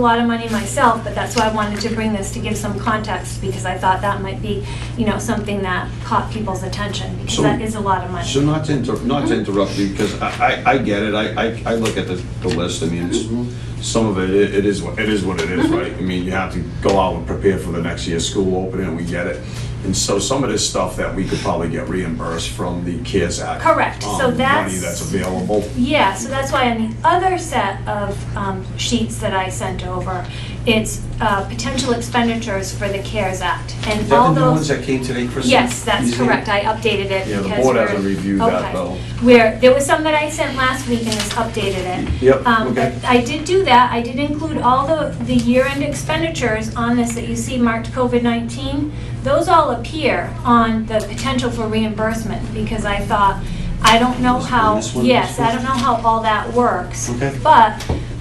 a lot of money myself, but that's why I wanted to bring this to give some context because I thought that might be, you know, something that caught people's attention because So- that is a lot of money. So not to inter, not to interrupt you, because I, I, I get it, I, I, I look at the, the list, I mean, it's, some of it, it it is, what- it is what it is, Mm-hmm. right? I mean, you have to go out and prepare for the next year's school opening, and we get it. And so some of this stuff that we could probably get reimbursed from the CARES Act. Correct. So um, Money that's- that's available. Yeah, so that's why on the other set of um, sheets that I sent over, it's uh, potential expenditures for the CARES Act. Is And all that the new ones those, that came today, Kristen? yes, that's You see? correct, I updated it. Yeah, the because board hasn't we're- reviewed that, okay. though. Where, there was some that I sent last week and it's updated it. Yep, Um, okay. but I did do that, I did include all the, the year-end expenditures on this that you see marked COVID-19. Those all appear on the potential for reimbursement, because I thought, I don't know This one, how, this one, yes, this one? I don't know how all that works. Okay. But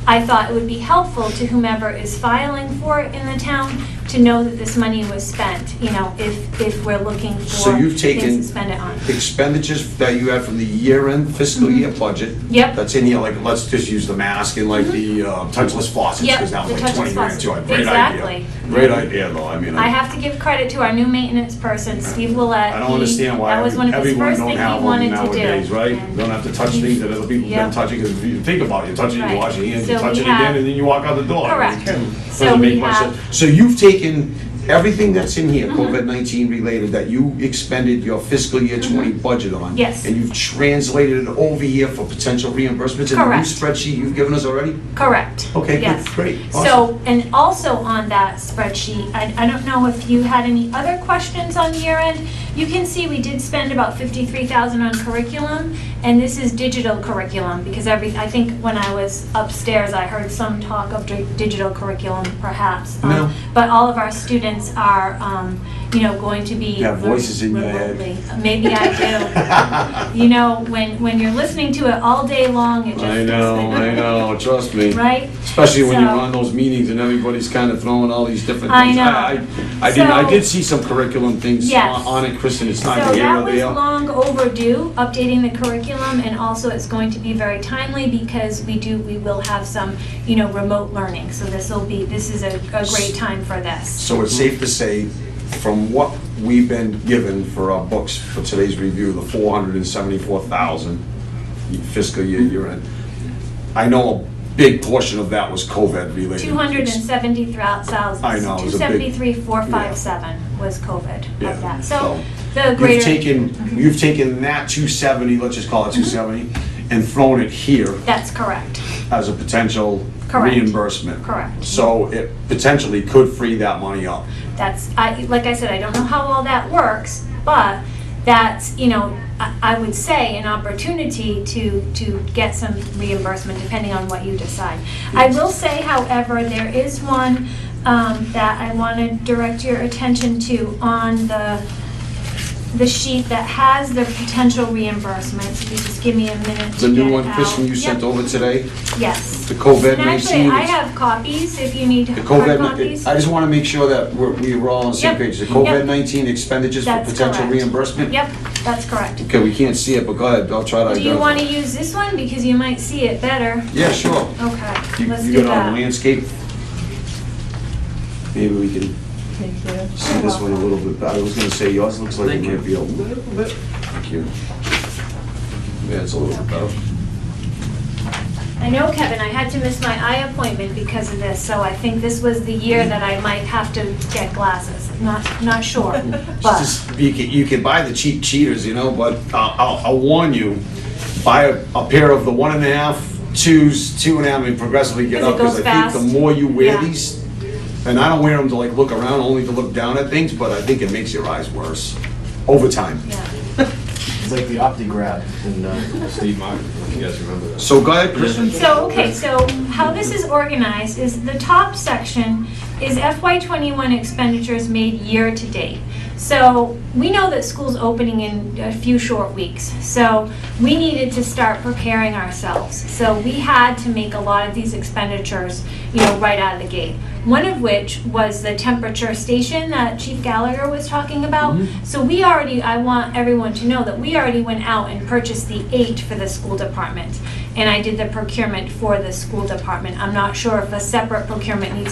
I thought it would be helpful to whomever is filing for it in the town to know that this money was spent, you know, if, if we're looking So for you've things taken to spend it on. expenditures that you have from the year-end fiscal year budget. Mm-hmm. Yep. Mm-hmm. That's in here, like, let's just use the mask and like the uh, touchless faucets. Yep, Because that was the like touchless 20 grand faucets. too. Great Exactly. idea. Great idea, though, I mean. I have to give credit to our new maintenance person, Steve Willett. I don't understand why That was one of his everyone first don't things he have one wanted to do. nowadays, right? You Don't have to touch things that other people have Yep. been touching, because if you think about it, you touch it, you Right. wash your hands, you So touch we it again, have- and then you walk out the door. Correct. So Doesn't we make much have- Mm-hmm. sense. So you've taken everything that's in here, COVID-19 related, that you expended your fiscal year 20 budget on. Mm-hmm. Yes. And you've translated it over here for potential reimbursements in the new Correct. spreadsheet you've given us already? Correct. Okay, good, Yes. great, So, and also on that spreadsheet, I, I don't know if you had any other questions on year end. You can see we did spend about fifty-three thousand on curriculum, and this is digital curriculum, because every, I think when I was upstairs, I heard some talk of di- digital curriculum perhaps. Um, No. But all of our students are, um, you know, going to be. You have voices in your head. remotely. Maybe I do. You know, when, when you're listening to it all day long, it just. I know, I know, trust me. Right? Especially when you're So- on those meetings and everybody's kind of throwing all these different I things. know. I- I did, I So- did see some curriculum things Yes. on on it, Kristen, it's So not here that or was there. long overdue, updating the curriculum, and also it's going to be very timely because we do, we will have some, you know, remote learning. So this will be, this is a, a great time for this. So it's safe to say, from what we've been given for our books for today's review, the four hundred and seventy-four thousand fiscal year year end, I know a big portion of that was COVID related. Two hundred and seventy thousand. I know, it was a big- Two seventy-three, four five seven was COVID Yeah, of that. so So the You've greater, taken, you've taken that two seventy, let's just call it two seventy, and thrown it here that's correct, as a potential Correct. reimbursement. correct. So it potentially could free that money up. That's, I, like I said, I don't know how all that works, but that's, you know, I, I would say an opportunity to, to get some reimbursement depending on what you decide. I will say, however, there is one, um, that I want to direct your attention to on the, the sheet that has the potential reimbursement. So you just give me a minute to The get new it one, Kristen, out. you sent Yep. over today, Yes. the COVID And actually, nineteen. I have copies if you need The hard copies. COVID, I just want to make sure that we're, we were all on the same Yep, page. The yep. COVID-19 expenditures for That's potential correct. reimbursement? Yep, that's correct. Okay, we can't see it, but go ahead, I'll try to Do you identify. want to use this one because you might see it better? Yeah, sure. Okay, Oh, You let's you do got it that. on the landscape? Maybe we can Thank you. see this one a little bit better. I was gonna say yours looks like it Thank you. might be a little bit. Thank you. Yeah, it's a little bit better. I know, Kevin, I had to miss my eye appointment because of this, so I think this was the year that I might have to get glasses. Not, not sure, but, Just- You can, you can buy the cheap cheaters, you know, but I'll, I'll, I'll warn you, buy a, a pair of the one and a half, twos, two and a half, and progressively get 'Cause it up, because goes I think fast. the more you wear Yeah. these, and I don't wear them to like look around, only to look down at things, but I think it makes your eyes worse over time. yeah. It's like the OptiGrab and uh, Steve Martin, if you guys remember that. So go ahead, Kristen. So, okay, so how this is organized is the top section is FY twenty-one expenditures made year-to-date. So, we know that school's opening in a few short weeks, so we needed to start preparing ourselves. So, we had to make a lot of these expenditures, you know, right out of the gate. One of which was the temperature station that Chief Gallagher was talking about. So we already, I want everyone to know that we already went out and purchased the eight for the school department. and I did the procurement for the school department. I'm not sure if a separate procurement needs